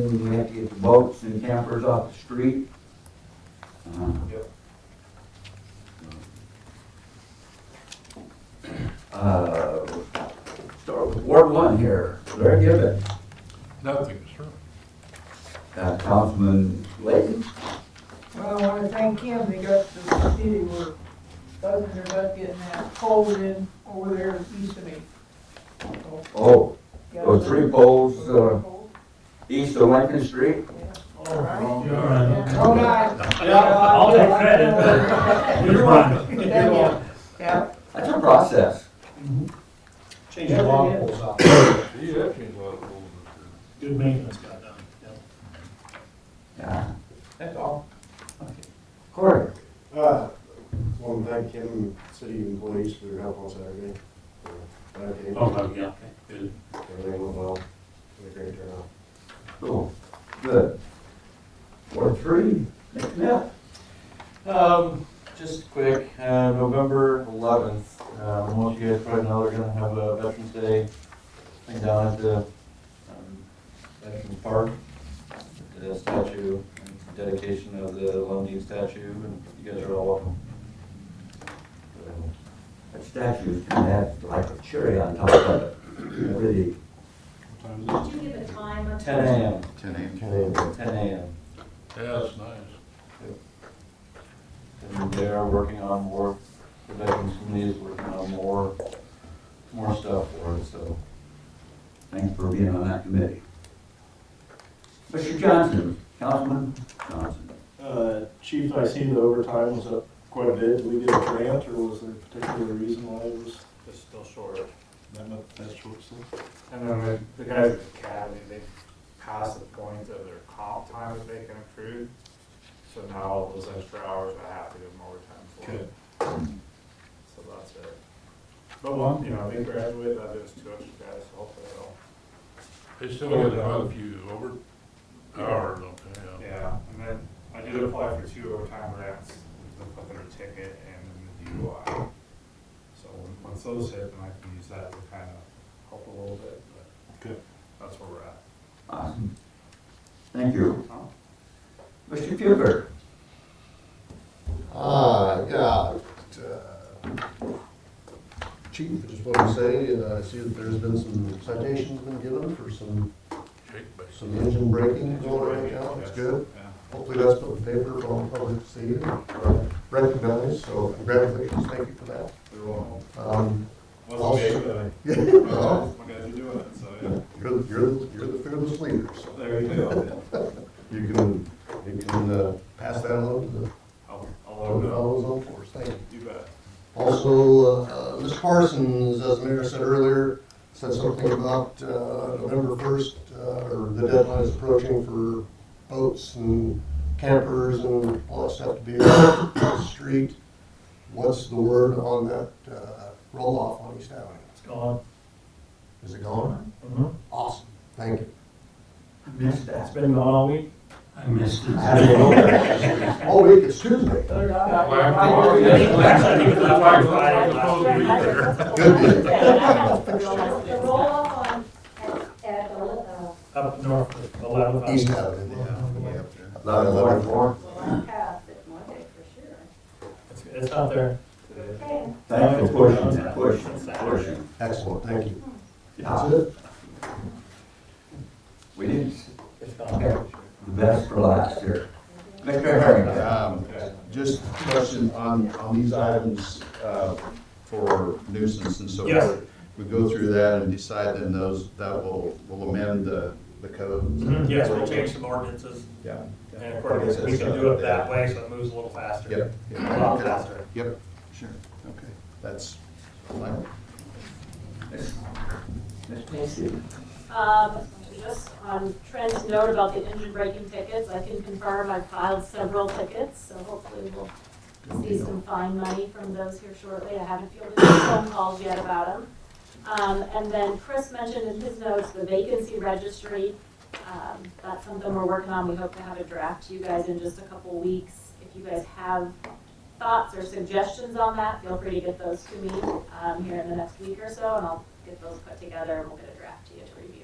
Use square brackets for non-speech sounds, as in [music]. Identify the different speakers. Speaker 1: We have to get the boats and campers off the street. Uh,
Speaker 2: Yep.
Speaker 1: Uh, start with Ward one here, Larry Gibbon,
Speaker 2: Nothing, sir.
Speaker 1: uh, Councilman Layton.
Speaker 3: Well, I wanna thank him, they got to the city where dozens are about getting that pole in over there east of me. So,
Speaker 1: Oh,
Speaker 3: got
Speaker 1: those three poles, uh, east of Lincoln Street.
Speaker 3: All right.
Speaker 2: You're
Speaker 3: All right.
Speaker 4: I'll take credit. You're one.
Speaker 3: Thank you. Yeah,
Speaker 1: That's a process.
Speaker 5: Change the log poles out.
Speaker 2: You have changed a lot of rules.
Speaker 4: Good maintenance got done.
Speaker 1: Yeah.
Speaker 3: that's all.
Speaker 1: Corey,
Speaker 6: Uh, want to thank Kim and city employees for their help on Saturday. Uh, glad they-
Speaker 4: Oh, yeah, good.
Speaker 6: Everything went well. Had a great turnout.
Speaker 1: cool, good. Ward three, Nick Smith.
Speaker 5: Um, just quick, uh, November eleventh, um, most of you guys probably know, we're gonna have a Veterans Day thing down at the, um, Veterans Park. The statue, and dedication of the Lundy statue, and you guys are all welcome.
Speaker 1: That statue's kind of had like a cherry on top of it, really.
Speaker 7: Did you give a time of?
Speaker 5: Ten AM,
Speaker 2: Ten eight.
Speaker 5: ten AM.
Speaker 2: Yeah, that's nice.
Speaker 5: And they are working on more, the Veterans Committee is working on more, more stuff for it, so.
Speaker 1: Thanks for being on that committee. Mr. Johnson, Councilman Johnson.
Speaker 8: Uh, Chief, I see the overtime was up quite a bit. Did we get a grant or was there a particular reason why it was
Speaker 9: It's still short.
Speaker 8: that much, that short? so?
Speaker 9: And then the, the guys at the academy, they passed the point of their comp time that they can accrue. So now all those extra hours I have to give them overtime for.
Speaker 8: Good.
Speaker 9: So that's it. But one, you know, they graduated, that is two extra guys, so hopefully they'll.
Speaker 2: They still get quite a few over hours, okay, yeah.
Speaker 9: Yeah, and then I did apply for two overtime grants, the their ticket and then the DUI. So when- once those hit, then I can use that to kind of help a little bit, but.
Speaker 8: Good.
Speaker 9: That's where we're at.
Speaker 1: Awesome. Thank you. Mr. Huber.
Speaker 10: Ah, yeah. uh, Chief, I just want to say, uh, I see that there's been some citations been given for some,
Speaker 2: Shake bake.
Speaker 10: some engine braking going right now, that's good.
Speaker 9: Yeah.
Speaker 10: Hopefully that's put in paper for all the public to see and Uh, recognize, so congratulations, thank you for that.
Speaker 9: They're rolling.
Speaker 10: Um,
Speaker 9: Wasn't big, but I
Speaker 10: [laughs] You're,
Speaker 9: My guys are doing it, so yeah.
Speaker 10: the- you're, the- you're the fearless leader, so
Speaker 9: There you go.
Speaker 10: you can, you can uh, pass that along to the
Speaker 9: I'll,
Speaker 10: to
Speaker 2: Oh,
Speaker 9: I'll,
Speaker 10: the
Speaker 9: I'll,
Speaker 10: fellows on force, thank
Speaker 9: you
Speaker 10: you.
Speaker 9: bet.
Speaker 10: Also, uh, Ms. Parsons, as the Mayor said earlier, said something about uh, November 1st, uh, or the deadline is approaching for boats and campers and all that stuff to be on the street. What's the word on that uh, roll-off on East Avenue?
Speaker 4: It's gone.
Speaker 10: Is it gone?
Speaker 4: Mhm.
Speaker 10: Awesome, thank you.
Speaker 1: Missed
Speaker 4: It's been gone all week.
Speaker 1: I missed
Speaker 5: [laughs]
Speaker 1: it.
Speaker 10: All week, it's Tuesday.
Speaker 3: They're not-
Speaker 1: [laughs]
Speaker 2: [laughs]
Speaker 3: [laughs]
Speaker 7: [laughs]
Speaker 10: Good deal.
Speaker 7: The roll off on, at, at, the, uh,
Speaker 4: Up north of eleven.
Speaker 10: East Avenue, yeah.
Speaker 4: Yeah.
Speaker 1: Eleven one four.
Speaker 7: well, pass it Monday for sure.
Speaker 4: It's, it's out there.
Speaker 7: Okay.
Speaker 1: Thanks for pushing that, pushing, pushing.
Speaker 10: Excellent, thank you. That's
Speaker 1: Yeah,
Speaker 10: it.
Speaker 1: we didn't,
Speaker 4: It's gone.
Speaker 1: okay, the best for last here. Mr. Harrington.
Speaker 11: Um, Just a question on, on these items uh, for nuisance and so
Speaker 4: Yes.
Speaker 11: forth. We go through that and decide then those, that will, will amend the, the code.
Speaker 9: Mm-hmm.
Speaker 4: Mhm, Yes, we'll change some ordinances,
Speaker 11: Yeah.
Speaker 4: and of course, we can do it that way, so it moves a little faster.
Speaker 11: Yep.
Speaker 4: A lot
Speaker 11: Yep.
Speaker 4: faster.
Speaker 11: Yep, sure, okay. That's fine.
Speaker 1: Miss Miss Patsy.
Speaker 7: Um, just on Trent's note about the engine braking tickets, I can confirm I filed several tickets, so hopefully we'll see some fine money from those here shortly. I haven't fielded any phone calls yet about them. Um, and then Chris mentioned in his notes the vacancy registry. Um, that's something we're working on. We hope to have a draft to you guys in just a couple weeks. If you guys have thoughts or suggestions on that, feel free to get those to me, um, here in the next week or so, and I'll get those put together and we'll get a draft to you to review.